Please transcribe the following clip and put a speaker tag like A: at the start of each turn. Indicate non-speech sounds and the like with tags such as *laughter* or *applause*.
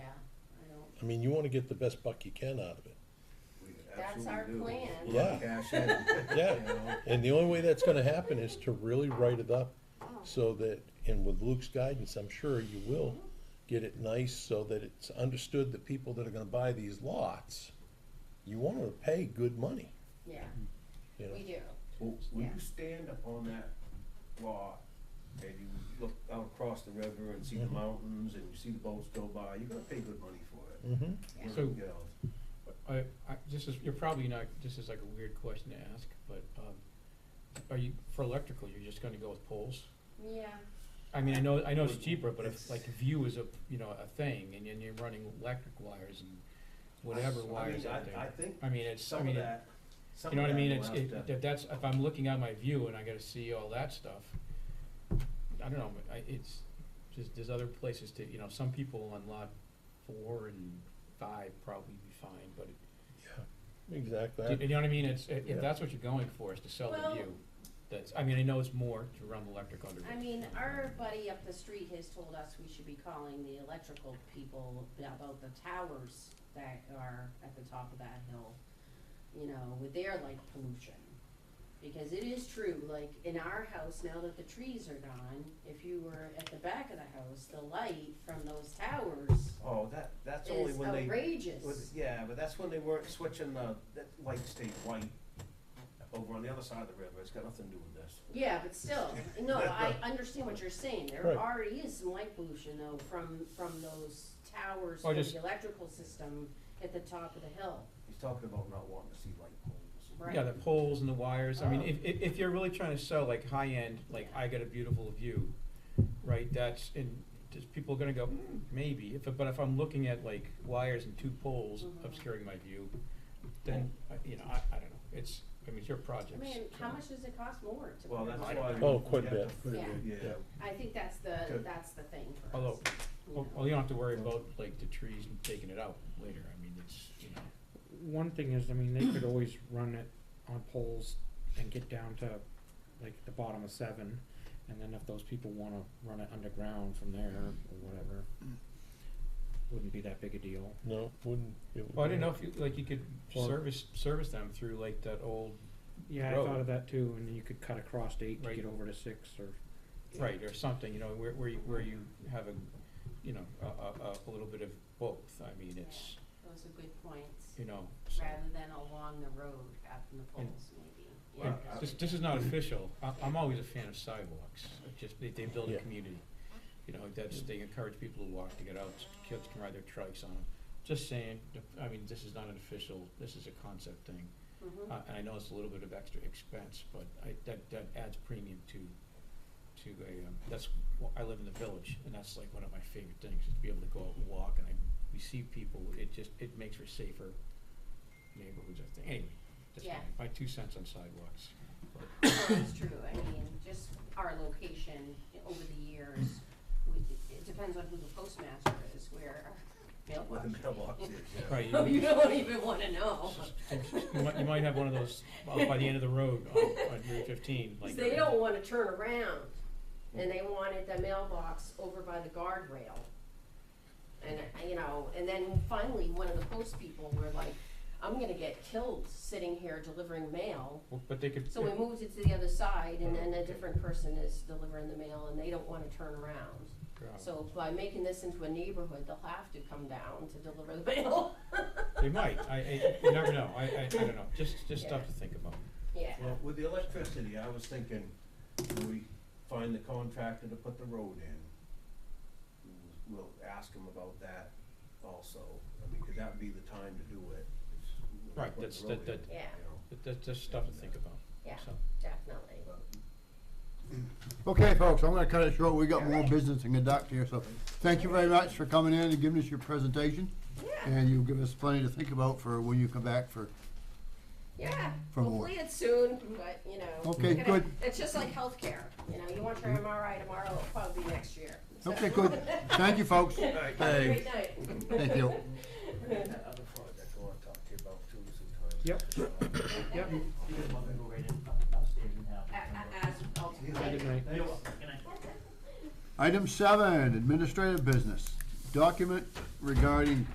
A: I mean, you wanna get the best buck you can out of it.
B: We
C: That's our
B: absolutely do.
C: plan.
B: We want
A: Yeah.
B: Cash
D: *laughs*
B: in, you
A: Yeah,
B: know?
A: and the only way that's gonna happen is to really write it up
C: Oh.
A: so that, and with Luke's guidance, I'm sure you will get it nice so that it's understood that people that are gonna buy these lots, you want them to pay good money,
C: Yeah,
A: you know?
C: we do.
B: Will will
C: Yeah.
B: you stand up on that lot and you look out across the river and see the
D: Mm-hmm.
A: Mhm.
B: mountains and you see the boats go by, you're gonna pay good money for it.
A: Mm-hmm,
C: Yeah.
B: Wherever
D: So-
B: it goes.
D: I, I, this is, you're probably not, this is like a weird question to ask, but, um, are you, for electrical, you're just gonna go with poles?
C: Yeah,
D: I mean, I know, I know it's
B: Well,
D: cheaper, but
B: it's-
D: if, like, view is a, you know, a thing, and then you're running electric wires and whatever
B: I
D: wires
B: mean,
D: out
B: I, I
D: there.
B: think
D: I mean, it's, I
B: some of
D: mean, it-
B: that, some
D: you know
B: of
D: what I
B: that
D: mean,
B: will
D: it's,
B: have
D: it,
B: to-
D: if that's, if I'm looking at my view and I gotta see all that stuff, I don't know, but I, it's, just, there's other places to, you know, some people on lot four and five probably be fine, but it,
A: yeah, exactly.
D: Do You you know what I mean, it's, i-
A: Yeah.
D: if that's what you're going for, is to sell
C: Well-
D: the view, that's, I mean, I know it's more to run electric under.
C: I mean, our buddy up the street has told us we should be calling the electrical people about the towers that are at the top of that hill, you know, with their like pollution. Because it is true, like in our house, now that the trees are gone, if you were at the back of the house, the light from those towers
B: Oh, that, that's only
C: is
B: when they,
C: outrageous.
B: was- yeah, but that's when they weren't switching the, that light stayed white over on the other side of the river, it's got nothing to do with this.
C: Yeah, but
D: *laughs*
C: still, no, I understand what you're saying, there
A: Right.
C: already is some light pollution though from, from those towers,
D: Or
C: from
D: just-
C: the electrical system at the top of the hill,
B: He's talking about not wanting to see light poles.
C: right?
D: Yeah, the poles and the wires, I mean,
C: Oh.
D: if, if, if you're really trying to sell like high-end, like I got a beautiful view, right, that's, and just people are gonna go, "Hmm, maybe, if, but if I'm looking at like wires and two poles
C: Mhm.
D: obscuring my view, then, I- you know, I, I don't know, it's, I mean, it's your project.
C: I mean,
D: so-
C: how much does it cost more to?
B: Well,
C: put
B: that's
C: it
B: why.
C: on?
A: Oh, quite a
B: you have
A: bit,
B: to-
C: quite a
A: bit,
B: Yeah.
C: I think that's the,
B: Good.
C: that's the thing for us.
D: Although, oh,
C: you
D: well,
C: know.
D: well, you don't have to worry about like the trees and taking it out later, I mean, it's, you know.
E: One thing is, I mean, they could always run it on poles and get down to like the bottom of seven. And then if those people wanna run it underground from there or whatever, wouldn't be that big a deal.
A: No, wouldn't. it
D: Well, I didn't know
A: wouldn't.
D: if you, like, you could
E: Or-
D: service, service them through like that old,
E: Yeah, I
D: Road.
E: thought of that too, and then you could cut across to eight to
D: Right.
E: get over to six or,
D: right, or something, you know, where, where you, where you have a, you know, a, a, a little bit of both, I mean, it's,
C: Those are good points,
D: you know, so.
C: rather than along the road out in the
D: And-
C: poles maybe. you
D: And
C: know.
D: This, this is not official, I, I'm always a fan of sidewalks, It just, they, they build a
A: Yeah.
D: community, you know, that's, they encourage people to walk, to get out, kids can ride their trikes on them. Just saying, I mean, this is not an official, this is a concept thing,
C: Mhm.
D: Uh, and I know it's a little bit of extra expense, but I, that, that adds premium to, to a, um, that's, wh- I live in the village, and that's like one of my favorite things, is to be able to go out and walk, and I, we see people, it just, it makes for safer neighborhoods, I think, anyway. That's my,
C: Yeah.
D: my two cents on sidewalks.
C: No, it's true, I mean, just our location over the years, we, it depends on who the postmaster is, where our
B: Where the
C: mailbox.
B: mailbox is, yeah.
C: *laughs*
D: Right, you,
C: Oh, you don't even wanna know,
D: you might, you might have one
C: *laughs*
D: of those, out by the end of the road, on, on Route fifteen, like. uh, Hmm.
C: 'Cause they don't wanna turn around, and they wanted the mailbox over by the guardrail. And, uh, you know, and then finally, one of the post people were like, I'm gonna get killed sitting here delivering mail.
D: But they could.
C: So we moved it to the other side, and then a different person is delivering the mail, and they don't wanna turn around.
D: Yeah.
C: So by making this into a neighborhood, they'll have to come down to deliver the *laughs* mail.
D: They might, I, I, you never know, I, I, I don't know, just, just stuff to think about.
C: Yeah,
B: Well, with the electricity, I was thinking, when we find the contractor to put the road in, we'll ask him about that also. I mean, could that be the time to do it? is when we
D: Right,
B: put the
D: that's-
B: road
D: that-
B: in,
C: that- Yeah.
B: you know?
D: But that's just stuff to think about,
C: yeah,
D: so.
C: definitely.
F: Okay, folks, I'm gonna cut it short. We got more business to conduct here, so thank you very much for coming in and giving us your presentation.
C: Yeah,
F: And you'll give us plenty to think about for when you come back for,
C: yeah,
F: From what?
C: hopefully it's soon, but, you know.
F: Okay,
C: gonna-
F: good.
C: It's just like healthcare, you know, you want your MRI tomorrow, it'll probably be next year. so.
F: okay, good. Thank you, folks.
B: Alright,
C: Have a
F: Hey,
C: great night.
F: Thank you.
B: that other project I wanna talk to you about too sometimes.
E: Yep.
C: Yep.
G: You guys want me to go right in upstairs and have.
C: A- a- As, I'll-
E: good night.
G: You're welcome. Good night.
F: Item seven, administrative business. Document regarding